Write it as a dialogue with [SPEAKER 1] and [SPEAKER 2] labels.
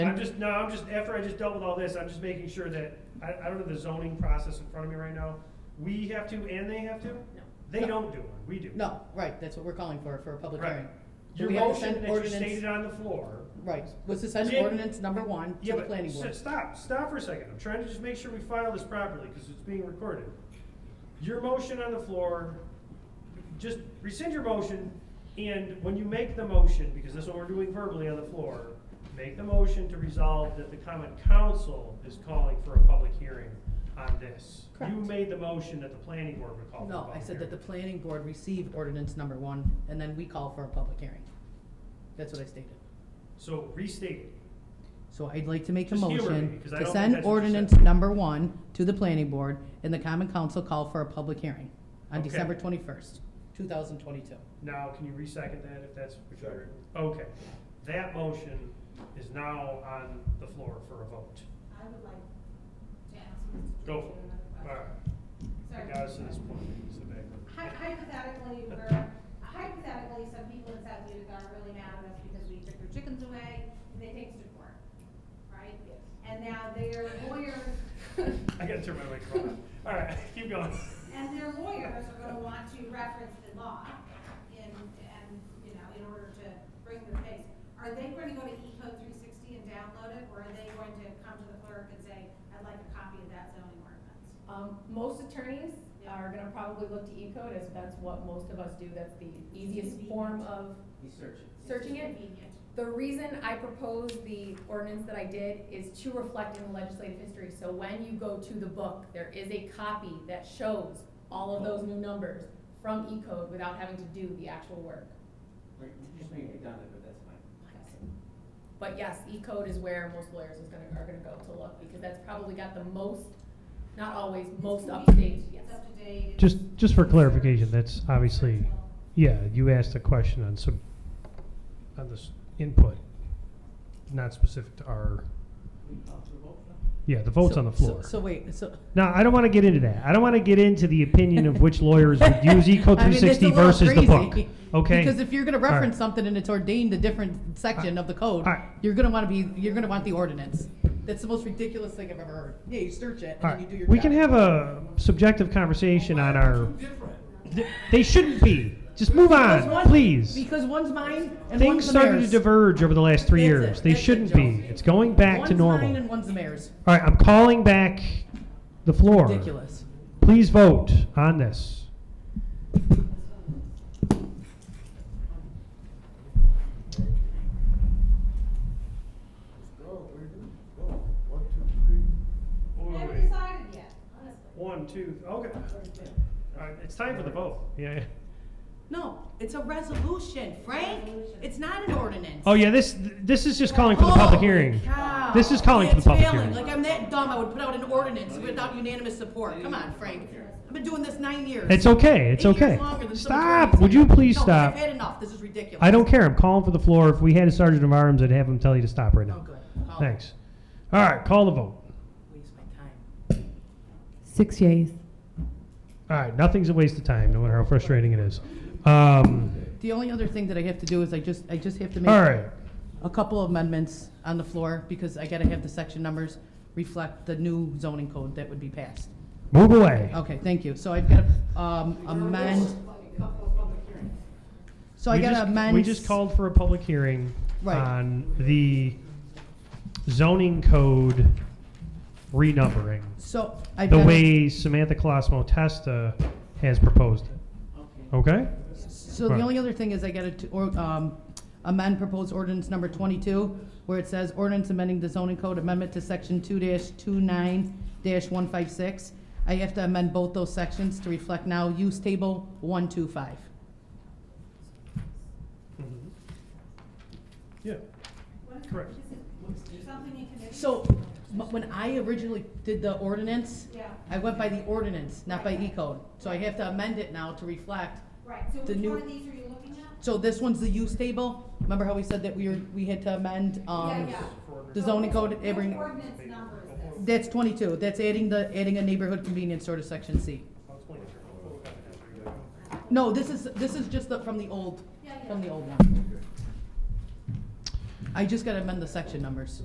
[SPEAKER 1] I'm just, no, I'm just, after I just dealt with all this, I'm just making sure that, I, I don't have the zoning process in front of me right now. We have to and they have to?
[SPEAKER 2] No.
[SPEAKER 1] They don't do it, we do.
[SPEAKER 3] No, right, that's what we're calling for, for a public
[SPEAKER 1] Right.
[SPEAKER 3] hearing. Do
[SPEAKER 1] Your
[SPEAKER 3] we have to
[SPEAKER 1] motion
[SPEAKER 3] send
[SPEAKER 1] that you
[SPEAKER 3] ordinance?
[SPEAKER 1] stated on the floor.
[SPEAKER 3] Right, was to send
[SPEAKER 1] Did-
[SPEAKER 3] ordinance number one
[SPEAKER 1] Yeah,
[SPEAKER 3] to the
[SPEAKER 1] but,
[SPEAKER 3] planning
[SPEAKER 1] s-
[SPEAKER 3] board.
[SPEAKER 1] stop, stop for a second, I'm trying to just make sure we file this properly, because it's being recorded. Your motion on the floor, just rescind your motion, and when you make the motion, because that's what we're doing verbally on the floor, make the motion to resolve that the common council is calling for a public hearing on this. You
[SPEAKER 3] Correct.
[SPEAKER 1] made the motion that the planning board would call for a
[SPEAKER 3] No, I
[SPEAKER 1] public
[SPEAKER 3] said that the
[SPEAKER 1] hearing.
[SPEAKER 3] planning board received ordinance number one, and then we call for a public hearing. That's what I stated.
[SPEAKER 1] So restate it.
[SPEAKER 3] So I'd like to make a
[SPEAKER 1] Just humor me,
[SPEAKER 3] motion
[SPEAKER 1] 'cause I
[SPEAKER 3] to
[SPEAKER 1] don't think
[SPEAKER 3] send
[SPEAKER 1] that's what you
[SPEAKER 3] ordinance
[SPEAKER 1] said.
[SPEAKER 3] number one to the planning board and the common council call for a public hearing on
[SPEAKER 1] Okay.
[SPEAKER 3] December twenty-first, two thousand twenty-two.
[SPEAKER 1] Now, can you resecond that if that's what you're?
[SPEAKER 4] Second.
[SPEAKER 1] Okay, that motion is now on the floor for a vote.
[SPEAKER 2] I would like to ask Mr.
[SPEAKER 1] Go
[SPEAKER 2] Chairman
[SPEAKER 1] All
[SPEAKER 2] another
[SPEAKER 1] right, I
[SPEAKER 2] question.
[SPEAKER 1] got us to
[SPEAKER 2] Sorry.
[SPEAKER 1] this point. It's the back.
[SPEAKER 2] Hy- Hypothetically, we're, hypothetically, some people in South Utica are really mad at us because we took their chickens away and they take us to court, right? Yes. And now their lawyers,
[SPEAKER 1] I gotta turn my microphone on. All right, keep going.
[SPEAKER 2] and their lawyers are gonna want to reference the law in, and, you know, in order to bring their case. Are they going to go to Ecode three sixty and download it, or are they going to come to the clerk and say, I'd like a copy of that zoning ordinance?
[SPEAKER 5] Um, most attorneys
[SPEAKER 2] Yeah.
[SPEAKER 5] are gonna probably look to E-code as that's what most of us do, that's the easiest
[SPEAKER 2] Convenient.
[SPEAKER 5] form of
[SPEAKER 6] He's searching.
[SPEAKER 5] searching it.
[SPEAKER 2] Convenient.
[SPEAKER 5] The reason I proposed the ordinance that I did is to reflect in the legislative history, so when you go to the book, there is a copy that shows all of those new numbers from E-code without having to do the actual work.
[SPEAKER 6] We're we're just being redundant, but that's fine.
[SPEAKER 5] But yes, E-code is where most lawyers is gonna, are gonna go to look, because that's probably got the most, not always, most up to date, yes.
[SPEAKER 2] It's up to date.
[SPEAKER 7] Just, just for clarification, that's obviously, yeah, you asked a question on some, on this input, not specific to our,
[SPEAKER 6] We call for a vote now?
[SPEAKER 7] yeah, the vote's on the
[SPEAKER 3] So- so-
[SPEAKER 7] floor.
[SPEAKER 3] So wait, so.
[SPEAKER 7] Now, I don't want to get into that. I don't want to get into the opinion of which lawyers would use Eco
[SPEAKER 3] I mean,
[SPEAKER 7] three
[SPEAKER 3] it's a
[SPEAKER 7] sixty
[SPEAKER 3] little
[SPEAKER 7] versus the book,
[SPEAKER 3] crazy,
[SPEAKER 7] okay?
[SPEAKER 3] Because if you're gonna
[SPEAKER 7] right.
[SPEAKER 3] reference something and it's ordained a different section of the code,
[SPEAKER 7] All right.
[SPEAKER 3] you're gonna wanna be, you're gonna want the ordinance. That's the most ridiculous thing I've ever heard. Yeah, you search it
[SPEAKER 7] All
[SPEAKER 3] and then you
[SPEAKER 7] right,
[SPEAKER 3] do your
[SPEAKER 7] We can
[SPEAKER 3] job.
[SPEAKER 7] have a subjective conversation on our,
[SPEAKER 6] Two different.
[SPEAKER 7] th- they shouldn't be. Just move
[SPEAKER 3] Because
[SPEAKER 7] on,
[SPEAKER 3] one-
[SPEAKER 7] please.
[SPEAKER 3] Because one's mine and
[SPEAKER 7] Things
[SPEAKER 3] one's the
[SPEAKER 7] started to
[SPEAKER 3] mayor's.
[SPEAKER 7] diverge over the last three
[SPEAKER 3] That's it.
[SPEAKER 7] years. They
[SPEAKER 3] That's it,
[SPEAKER 7] shouldn't
[SPEAKER 3] Joe.
[SPEAKER 7] be. It's going back to normal.
[SPEAKER 3] One's mine and one's the mayor's.
[SPEAKER 7] All right, I'm calling back the floor.
[SPEAKER 3] Ridiculous.
[SPEAKER 7] Please vote on this.
[SPEAKER 4] Let's go, we do, go, one, two, three.
[SPEAKER 1] Wait,
[SPEAKER 2] I
[SPEAKER 1] wait,
[SPEAKER 2] haven't
[SPEAKER 1] wait.
[SPEAKER 2] decided yet, honestly.
[SPEAKER 1] One, two, okay. All right, it's time for the vote.
[SPEAKER 7] Yeah.
[SPEAKER 3] No, it's a resolution, Frank. It's not an ordinance.
[SPEAKER 7] Oh, yeah, this, this is just calling for the public
[SPEAKER 3] Holy
[SPEAKER 7] hearing.
[SPEAKER 3] cow.
[SPEAKER 7] This is calling for the
[SPEAKER 3] It's
[SPEAKER 7] public
[SPEAKER 3] failing.
[SPEAKER 7] hearing.
[SPEAKER 3] Like, I'm that dumb, I would put out an ordinance without unanimous support. Come on, Frank. I've been doing this nine years.
[SPEAKER 7] It's okay, it's
[SPEAKER 3] Eight years
[SPEAKER 7] okay.
[SPEAKER 3] longer than some
[SPEAKER 7] Stop,
[SPEAKER 3] attorneys
[SPEAKER 7] would
[SPEAKER 3] have.
[SPEAKER 7] you please
[SPEAKER 3] No,
[SPEAKER 7] stop?
[SPEAKER 3] I've had enough, this is ridiculous.
[SPEAKER 7] I don't care, I'm calling for the floor. If we had a sergeant of arms, I'd have him tell you to stop right
[SPEAKER 3] Oh,
[SPEAKER 7] now.
[SPEAKER 3] good. Oh,
[SPEAKER 7] Thanks. All right, call the vote.
[SPEAKER 3] Waste my time.
[SPEAKER 8] Six yeas.
[SPEAKER 7] All right, nothing's a waste of time, no matter how frustrating it is. Um,
[SPEAKER 3] The only other thing that I have to do is I just, I just have to make.
[SPEAKER 7] all right,
[SPEAKER 3] a couple of amendments on the floor, because I gotta have the section numbers reflect the new zoning code that would be passed.
[SPEAKER 7] move away.
[SPEAKER 3] Okay, thank you. So I've gotta, um, amend, so I
[SPEAKER 7] We
[SPEAKER 3] gotta
[SPEAKER 7] just-
[SPEAKER 3] amend.
[SPEAKER 7] We just called for a public hearing
[SPEAKER 3] Right.
[SPEAKER 7] on the zoning code renumbering,
[SPEAKER 3] So I've
[SPEAKER 7] the
[SPEAKER 3] gotta.
[SPEAKER 7] way Samantha Colosmo Testa has proposed it,
[SPEAKER 6] Okay.
[SPEAKER 7] okay?
[SPEAKER 3] So the
[SPEAKER 7] Right.
[SPEAKER 3] only other thing is I gotta, t- or, um, amend proposed ordinance number twenty-two, where it says ordinance amending the zoning code amendment to section two dash two nine dash one five six. I have to amend both those sections to reflect now use table one two five.
[SPEAKER 1] Yeah.
[SPEAKER 2] What is-
[SPEAKER 1] Correct.
[SPEAKER 2] is it Something you can.
[SPEAKER 3] So, m- when I originally did the ordinance,
[SPEAKER 2] Yeah,
[SPEAKER 3] I went by the ordinance, not by E-code. So I have to amend it now to reflect.
[SPEAKER 2] right, so
[SPEAKER 3] The
[SPEAKER 2] which
[SPEAKER 3] new-
[SPEAKER 2] one of these are you looking at?
[SPEAKER 3] So this one's the use table. Remember how we said that we were, we had to amend,
[SPEAKER 2] Yeah,
[SPEAKER 3] um,
[SPEAKER 2] yeah.
[SPEAKER 3] the
[SPEAKER 2] So
[SPEAKER 3] zoning
[SPEAKER 2] which-
[SPEAKER 3] code,
[SPEAKER 2] which
[SPEAKER 3] every,
[SPEAKER 2] ordinance number is this?
[SPEAKER 3] that's twenty-two. That's adding the, adding a neighborhood convenience store to section C. No, this is, this is just the, from the old,
[SPEAKER 2] Yeah, yeah.
[SPEAKER 3] from the old one. I just gotta amend the section numbers.